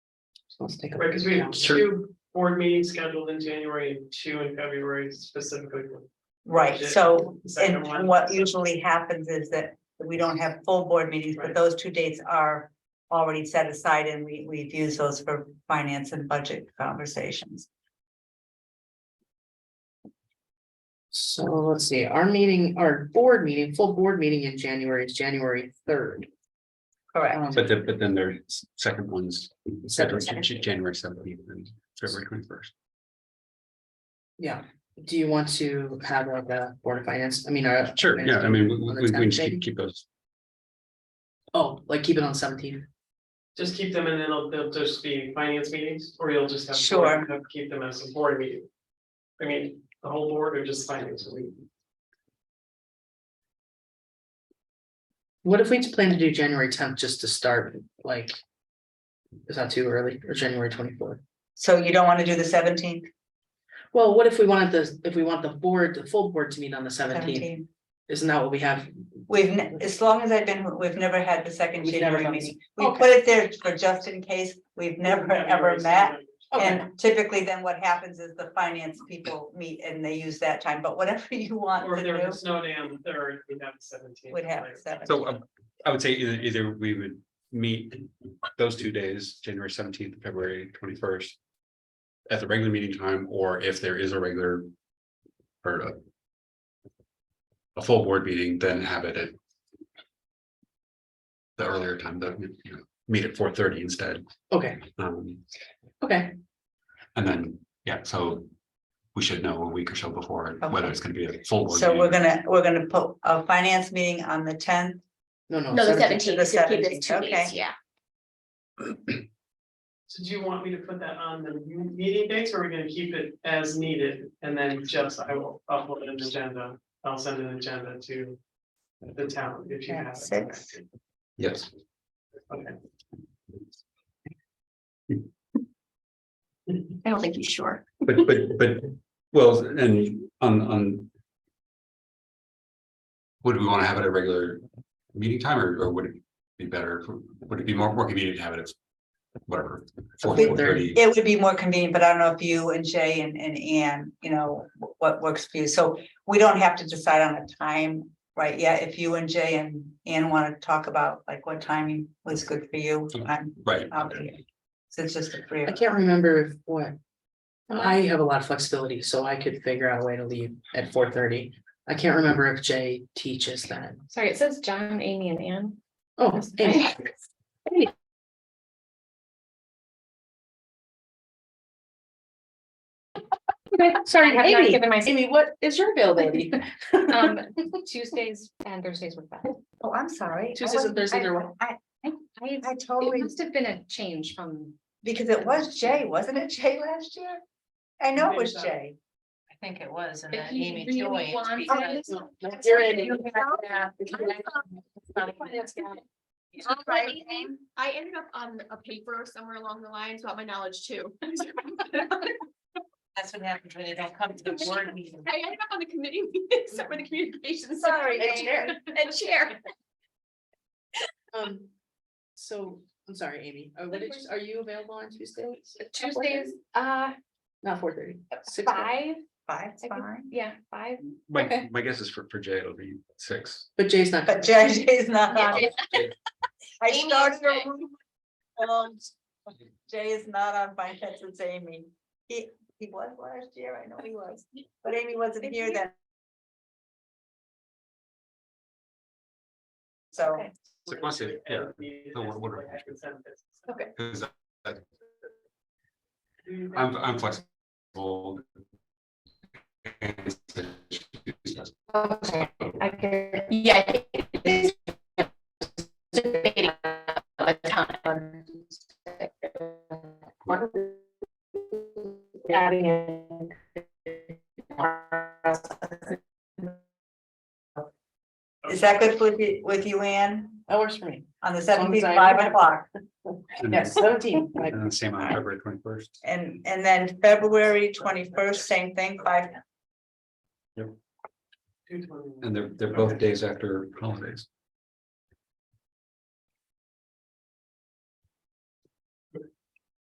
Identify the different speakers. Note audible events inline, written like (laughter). Speaker 1: So let's take a
Speaker 2: Right,
Speaker 1: look.
Speaker 2: because we have
Speaker 1: at
Speaker 3: Sure.
Speaker 2: two board meetings scheduled in January, and two in February specifically.
Speaker 4: Right, so,
Speaker 2: The second one.
Speaker 4: and what usually happens is that we don't have full board meetings, but
Speaker 2: Right.
Speaker 4: those two dates are already set aside and we, we've used those for finance and budget conversations.
Speaker 1: So let's see, our meeting, our board meeting, full board meeting in January is January third.
Speaker 4: Correct.
Speaker 1: Um,
Speaker 3: But then, but then their second one's February-
Speaker 1: Second.
Speaker 3: January seventeenth and February twenty first.
Speaker 1: Yeah, do you want to have like a board of finance, I mean, uh.
Speaker 3: Sure, yeah, I mean, we, we, we we just keep- keep those,
Speaker 1: Oh, like keep it on seventeen,
Speaker 2: Just keep them and then they'll, they'll just be finance meetings, or you'll just have.
Speaker 4: Sure.
Speaker 2: have- Keep them as a board meeting. I mean, the whole board or just finance meeting.
Speaker 1: what if we plan to do January tenth just to start, like? Is that too early, or January twenty-fourth?
Speaker 4: So you don't want to do the seventeenth,
Speaker 1: Well, what if we wanted this, if we want the board, the full board to meet on the seventeenth,
Speaker 4: seventeenth?
Speaker 1: isn't that what we have?
Speaker 4: We've, ne- as long as I've been, we've never had the second
Speaker 1: We've never
Speaker 4: January
Speaker 1: done
Speaker 4: meeting.
Speaker 1: this.
Speaker 4: We
Speaker 1: Okay.
Speaker 4: put it there for just in case. We've never, ever met.
Speaker 1: Okay,
Speaker 4: And typically then what happens is the finance people meet and they use that time, but whatever (laughs) you want
Speaker 2: Or
Speaker 4: to
Speaker 2: if there
Speaker 4: do
Speaker 2: was no damn third, we'd have seventeen.
Speaker 4: would have seven.
Speaker 3: so um, I would say either, either we would meet those two days, January seventeenth, February twenty first. At the regular meeting time, or if there is a regular. Or a. A full board meeting, then have it at. The earlier time, the, you know, meet at four thirty instead,
Speaker 1: okay,
Speaker 3: um,
Speaker 1: okay,
Speaker 3: and then, yeah, so. We should know a week or so before whether it's gonna be a full. board
Speaker 4: So we're
Speaker 3: meeting.
Speaker 4: gonna, we're gonna put a finance meeting on the tenth.
Speaker 1: no,
Speaker 5: Oh,
Speaker 1: no.
Speaker 6: No, the
Speaker 1: 17th.
Speaker 4: seventeenth.
Speaker 6: seventeenth, just keep
Speaker 4: seventeenth,
Speaker 6: this two
Speaker 4: okay.
Speaker 6: days, yeah.
Speaker 2: So do you want me to put that on the meeting dates, or are we gonna keep it as needed, and then just, I will upload an agenda, I'll send an agenda to. The town if you
Speaker 4: Yeah,
Speaker 2: have. it.
Speaker 4: six.
Speaker 3: Yes,
Speaker 6: I don't think he's sure.
Speaker 3: but but but, well, and on on. Would we want to have it at a regular meeting time or or would it be better, for- would it be more more convenient to have it at whatever? four
Speaker 4: Four
Speaker 3: thirty?
Speaker 4: It would be more convenient, but I don't know if you and Jay and, and Ann, you know, wh- what works for you. So we don't have to decide on a time right yet. If you and Jay and Ann want to talk about like what timing was good for you, I'm,
Speaker 3: Right,
Speaker 4: I'll be here. So it's just the three
Speaker 1: I
Speaker 4: of us.
Speaker 1: can't remember if what. I have a lot of flexibility, so I could figure out a way to leave at four thirty. I can't remember if Jay teaches that.
Speaker 7: Sorry, it says John, Amy and Anne.
Speaker 1: Oh, and
Speaker 7: Okay, sorry, I have not
Speaker 1: Amy,
Speaker 7: given my,
Speaker 1: Amy, what is your (laughs) availability?
Speaker 7: (laughs) um, Tuesdays and Thursdays were better.
Speaker 4: Oh, I'm sorry.
Speaker 1: Tuesdays and Thursdays are what?
Speaker 4: I,
Speaker 7: I,
Speaker 4: I
Speaker 7: it
Speaker 4: totally,
Speaker 7: must have been a change from,
Speaker 4: because it was Jay, wasn't it Jay last year? I know it was
Speaker 2: Maybe so.
Speaker 4: Jay.
Speaker 5: I think it was, and
Speaker 7: If
Speaker 5: then
Speaker 7: you
Speaker 5: Uh, Amy
Speaker 7: really
Speaker 5: joined.
Speaker 7: want
Speaker 5: because-
Speaker 7: to-
Speaker 1: You're in.
Speaker 6: I ended up on a paper somewhere along the lines about my knowledge too. (laughs) I
Speaker 5: That's what happens when they don't come to the board meeting.
Speaker 6: ended up on the committee, meeting, (laughs) so for the communications.
Speaker 4: Sorry,
Speaker 6: secretary And chair.
Speaker 1: Um, so, I'm sorry, Amy, uh, what did you- are you available on Tuesdays?
Speaker 7: Tuesdays, uh,
Speaker 1: Not four thirty.
Speaker 7: five,
Speaker 4: Five, it's
Speaker 7: I think-
Speaker 4: fine.
Speaker 7: yeah, five.
Speaker 3: my
Speaker 1: Okay.
Speaker 3: my guess is for for Jay, it'll be six.
Speaker 1: But Jay's not.
Speaker 4: But Jay (laughs) is not
Speaker 6: Yeah.
Speaker 5: Uh-huh.
Speaker 4: on. I
Speaker 6: Amy is
Speaker 4: started
Speaker 6: Jay.
Speaker 4: a room. Um, Jay is not on finance, it's Amy. He, he was last year, I know he was, but Amy wasn't here then. So,
Speaker 7: Okay.
Speaker 3: So it must have- yeah. No, what- what-
Speaker 2: Like, I can send this.
Speaker 7: Okay.
Speaker 3: 'Cause I- I'm I'm flexible.
Speaker 7: Okay, I can,
Speaker 6: Yeah. it is debating a time.
Speaker 7: adding in.
Speaker 4: is that good with you, with you, Ann,
Speaker 1: That works for me.
Speaker 4: on
Speaker 1: long
Speaker 4: the
Speaker 1: as
Speaker 4: seventeenth,
Speaker 1: I-
Speaker 4: five o'clock?
Speaker 1: Yes, seventeen. like,
Speaker 3: And then same on February twenty first.
Speaker 4: And, and then February twenty-first, same thing, five,
Speaker 2: Two twenty-one.
Speaker 3: And they're, they're
Speaker 2: Okay.
Speaker 3: both days after holidays.